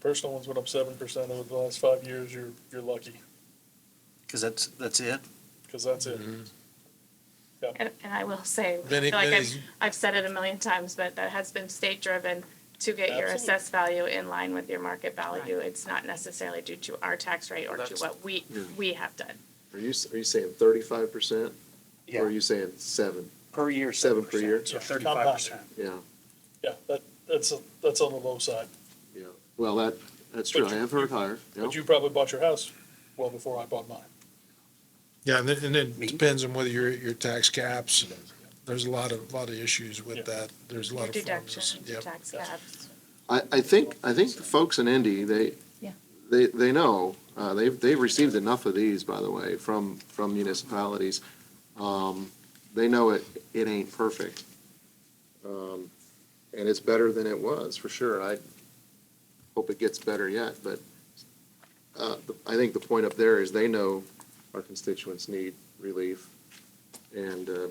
Personal ones went up seven percent over the last five years. You're, you're lucky, Because that's, that's it? because that's it. Mm-hmm. And, and I will say, I Many- feel like I've, many- I've said it a million times, but that has been state driven to get your Absolutely. assessed value in line with your market value. It's not necessarily due to our tax rate or to That's- what we, Yeah. we have done. Are you, are you saying thirty-five percent? Or are you saying seven? Per year. Seven per year? So Yeah, thirty-five percent. Yeah, Yeah, that, that's, a- that's on the low side. yeah. Well, that, that's true. But I you- have heard higher. Yeah. But you probably bought your house well before I bought mine. Yeah, and it, and it Me? depends on whether your, your tax caps, and there's a lot of, lot of issues Yeah. with that. There's a lot Your of. formulas. deduction, your Yep. tax caps. I, I think, I think the folks in Indy, they, Yeah. they, they know, uh, they've, they've received enough of these, by the way, from, from municipalities. Um, they know it, it ain't perfect. Um, and it's better than it was, for sure. I hope it gets better yet, but, uh, the- I think the point up there is they know our constituents need relief. And, um,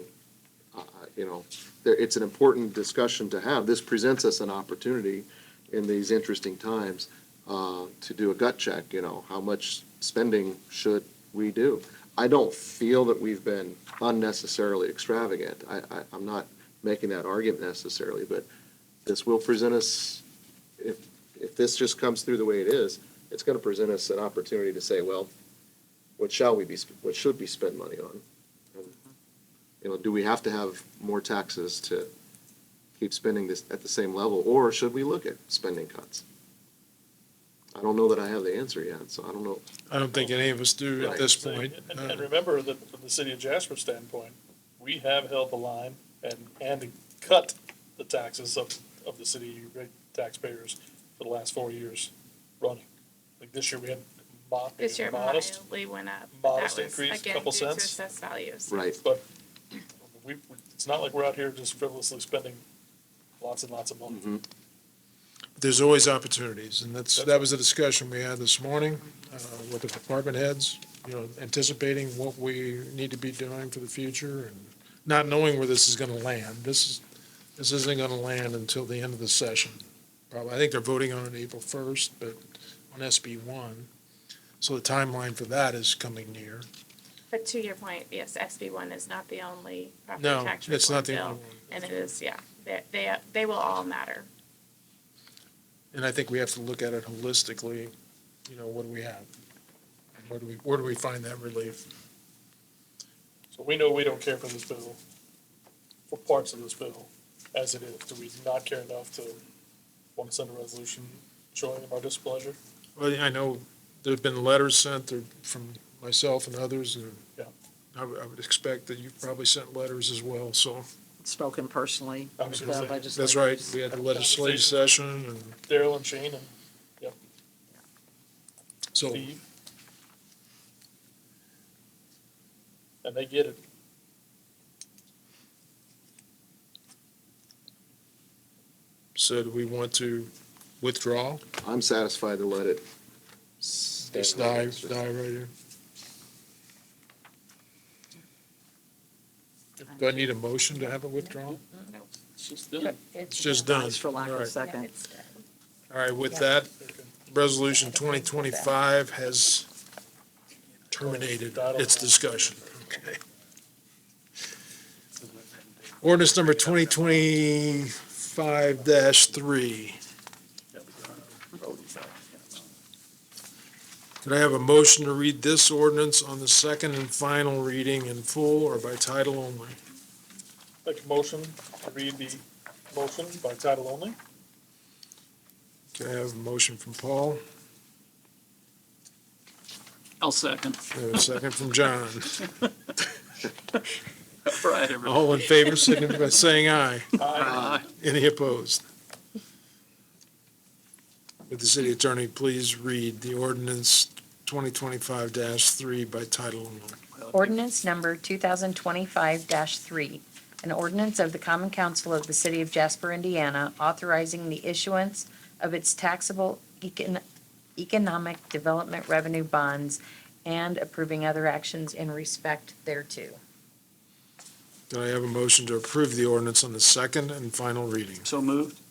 I- I- you know, there, it's an important discussion to have. This presents us an opportunity in these interesting times uh, to do a gut check, you know, how much spending should we do? I don't feel that we've been unnecessarily extravagant. I, I, I'm not making that argument necessarily, but this will present us, if, if this just comes through the way it is, it's gonna present us an opportunity to say, well, what shall we be, sp- what should we spend money on? you know, do we have to have more taxes to keep spending this at the same level, or should we look at spending cuts? I don't know that I have the answer yet, so I don't know. I don't think any of us do at Right. this So, point. and- Uh, And remember that from the city of Jasper standpoint, we have held the line and, and cut the taxes of, of the city taxpayers for the last four years running. Like this year, we had mo- This year modest, mildly went up, but that modest was increase, again due couple to cents. assessed values. Right. but we, we- it's not like we're out here just frivolously spending lots and lots of money. There's always opportunities, and that's, that was a discussion we had this morning uh, with the department heads, you know, anticipating what we need to be doing for the future and not knowing where this is gonna land. This is, this isn't gonna land until the end of the session. Probably, I think they're voting on it April first, but on SB one. So the timeline for that is coming near. But to your point, yes, SB one is not the only property No, tax it's reform not the bill, only one. And it is, yeah, they, they, they will all matter. And I think we have to look at it holistically, you know, what do we have? Where do we, where do we find that relief? So we know we don't care for this bill, for parts of this bill, as it is. Do we not care enough to want to send a resolution showing our displeasure? Well, I know there've been letters sent there from myself and others, and Yeah. I would, I would expect that you've probably sent letters as well, so. Spoken personally. I was gonna with the say, legislators. That's right, we had the legislative session, and Daryl and Shane and so, Steve. And they get it. so do we want to withdraw? I'm satisfied to let it. stand Just like die, it's just- die right here? Do I need a motion to have it withdrawn? She's done. It's just done. For lack All of right. second. All right, with that, resolution twenty twenty-five has terminated its discussion. Okay. Ordinance number twenty twenty-five three. Could I have a motion to read this ordinance on the second and final reading in full or by title only? Make a motion to read the motion by title only. Could I have a motion from Paul? I'll second. And a second from John. All right, everybody. All in favor, signify by saying aye. Aye. Any opposed? Would the city attorney please read the ordinance 2025-3 by title only? Ordinance number 2025-3, an ordinance of the Common Council of the City of Jasper, Indiana, authorizing the issuance of its taxable econ- economic development revenue bonds and approving other actions in respect thereto. Do I have a motion to approve the ordinance on the second and final reading? So moved.